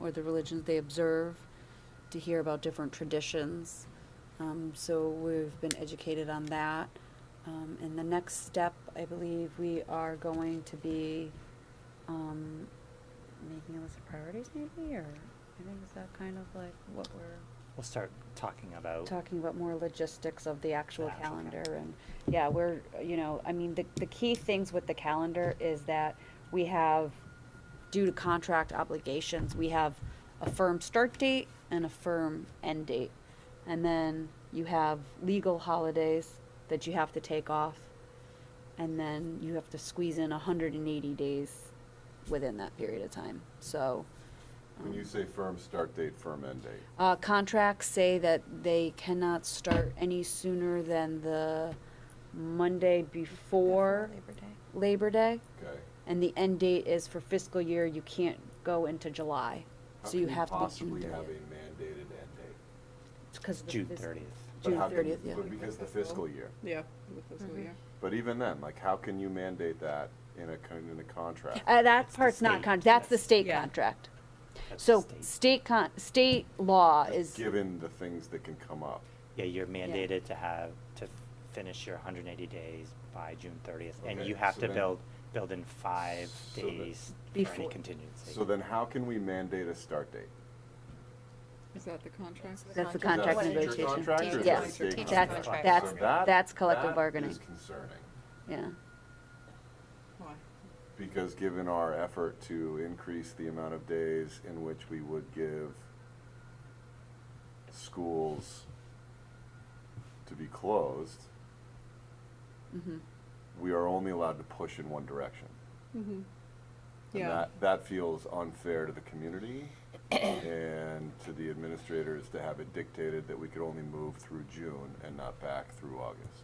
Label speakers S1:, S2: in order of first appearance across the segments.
S1: or the religions they observe, to hear about different traditions. Um, so we've been educated on that. Um, and the next step, I believe, we are going to be um, making a list of priorities, maybe, or I think is that kind of like what we're
S2: We'll start talking about.
S1: talking about more logistics of the actual
S2: The actual cal-
S1: calendar and yeah, we're you know, I mean, the the key things with the calendar is that we have due to contract obligations, we have a firm start date and a firm end date. And then you have legal holidays that you have to take off. And then you have to squeeze in 180 days within that period of time. So um,
S3: When you say firm start date, firm end date,
S1: uh, contracts say that they cannot start any sooner than the Monday before
S4: Labor Day.
S1: Labor Day.
S3: okay?
S1: And the end date is for fiscal year, you can't go into July.
S3: How
S1: So you
S3: can
S1: have to be.
S3: Possibly have a mandated end date.
S1: Because of the
S2: June
S1: fis-
S2: thirtieth.
S3: But
S1: June
S3: how can-
S1: 30th, yeah.
S3: But because the fiscal year.
S4: Yeah, with
S1: Mm-hmm.
S5: Mm-hmm.
S4: fiscal year.
S3: But even then, like, how can you mandate that in a, con- in a contract?
S1: Uh, that
S2: It's the
S1: part's not
S2: state,
S1: con, that's the
S2: yes.
S1: state
S4: Yeah.
S1: contract. So state con, state law is,
S3: Given the things that can come up.
S2: Yeah, you're mandated to have, to finish your hundred and eighty days by June thirtieth, and
S3: Okay,
S2: you have
S3: so
S2: to
S3: then-
S2: build, build in five
S3: So that-
S2: days for any
S1: Before-
S2: contingency.
S3: So then how can we mandate a start date?
S4: Is that the contract?
S1: that's the
S3: Is that
S1: contract
S3: a teacher
S1: negotiation.
S3: contract or is that a
S1: Yes,
S3: state
S1: teacher's
S3: contract?
S2: contract.
S1: That's-
S3: So
S1: that's-
S3: that-
S1: that's collective
S3: That
S1: bargaining.
S3: is concerning,
S1: Yeah.
S4: Why?
S3: because given our effort to increase the amount of days in which we would give schools to be closed,
S1: Mhm.
S3: we are only allowed to push in one direction.
S4: Mm-hmm.
S3: And
S4: Yeah.
S3: that, that feels unfair to the community and to the administrators to have it dictated that we could only move through June and not back through August.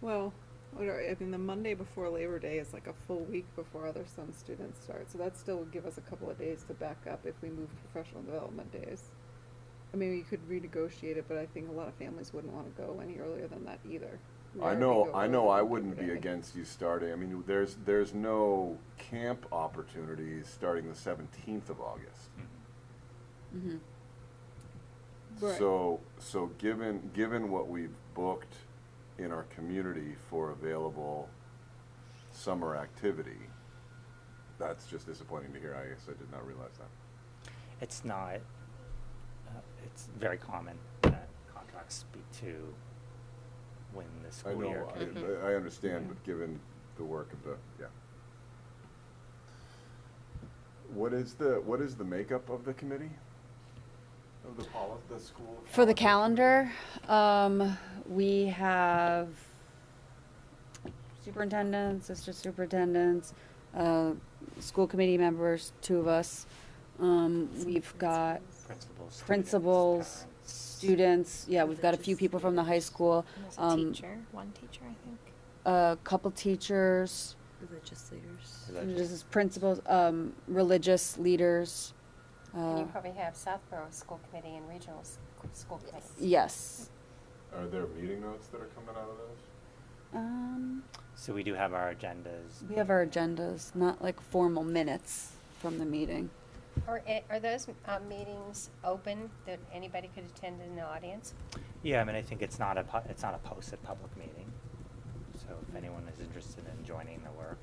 S4: Well, what are, I mean, the Monday before Labor Day is like a full week before other some students start, so that still would give us a couple of days to back up if we move professional development days. I mean, we could renegotiate it, but I think a lot of families wouldn't wanna go any earlier than that either. We
S3: I
S4: already
S3: know,
S4: go
S3: I
S4: earlier
S3: know I
S4: than
S3: wouldn't
S4: Labor
S3: be
S4: Day.
S3: against you starting, I mean, there's, there's no camp opportunities starting the seventeenth of August.
S2: Mm-hmm.
S1: Mhm.
S4: Right.
S3: So, so given, given what we've booked in our community for available summer activity, that's just disappointing to hear, I guess I did not realize that.
S2: It's not, uh, it's very common that contracts speak to when the
S3: I
S2: school year.
S3: know, I- I, I understand, but given the work of the, yeah. What is the, what is the makeup of the committee? Of the poli, the school?
S1: For the
S3: policy
S1: calendar, um, we have superintendents, assistant superintendents, uh, school committee members, two of us. Um, we've got
S2: Principals. students,
S1: principals,
S2: parents.
S1: students, yeah, we've got a few people from the high school,
S6: There's a
S1: um,
S6: teacher, one teacher, I think.
S1: a couple teachers,
S7: Religious leaders.
S2: Is that
S1: this
S2: just-
S1: is principals, um, religious leaders.
S5: And
S1: uh,
S5: you probably have Southborough School Committee and Regional s- School Committee.
S1: Yes.
S3: Are there meeting notes that are coming out of those?
S1: Um,
S2: So we do have our agendas.
S1: we have our agendas, not like formal minutes from the meeting.
S5: Are, a- are those uh, meetings open that anybody could attend in the audience?
S2: Yeah, I mean, I think it's not a, pu- it's not a posted public meeting. So if anyone is interested in joining the work,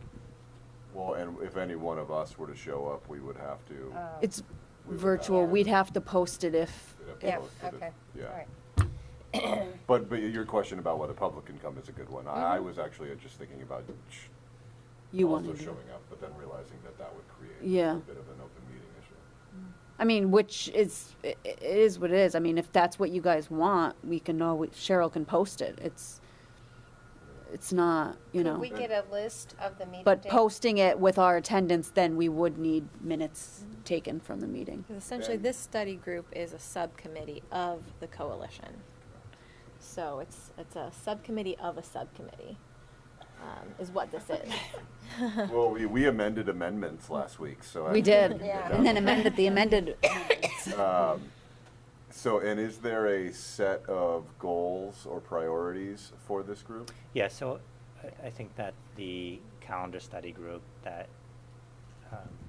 S3: Well, and if any one of us were to show up, we would have to.
S5: Oh.
S1: It's
S3: We would
S1: Uh, virtual,
S3: have-
S1: we'd have to post it if,
S3: we'd have to
S5: Yeah,
S3: post it if-
S5: okay, all
S3: Yeah,
S5: right.
S3: but, but your question about whether public can come is a good one. I, I was actually just thinking about sh-
S1: Mm-hmm. you
S3: also
S1: wanted to.
S3: showing up, but then realizing that that would create
S1: Yeah.
S3: a bit of an open meeting issue.
S1: I mean, which is, i- i- it is what it is. I mean, if that's what you guys want, we can know, we- Cheryl can post it. It's, it's not, you
S5: Could
S1: know.
S5: we get a list of the meeting
S1: But
S5: dates?
S1: posting it with our attendance, then we would need minutes
S5: Mm-hmm.
S1: taken from the meeting.
S6: Because essentially,
S3: And-
S6: this study group is a subcommittee of the coalition. So it's, it's a subcommittee of a subcommittee, um, is what this is.
S3: Well, we, we amended amendments last week, so. I
S1: We
S3: think
S1: did,
S3: can get
S5: Yeah.
S3: down
S1: and then
S3: to-
S1: amended the amended.
S3: Um, So, and is there a set of goals or priorities for this group?
S2: yeah, so I, I think that the calendar study group that um,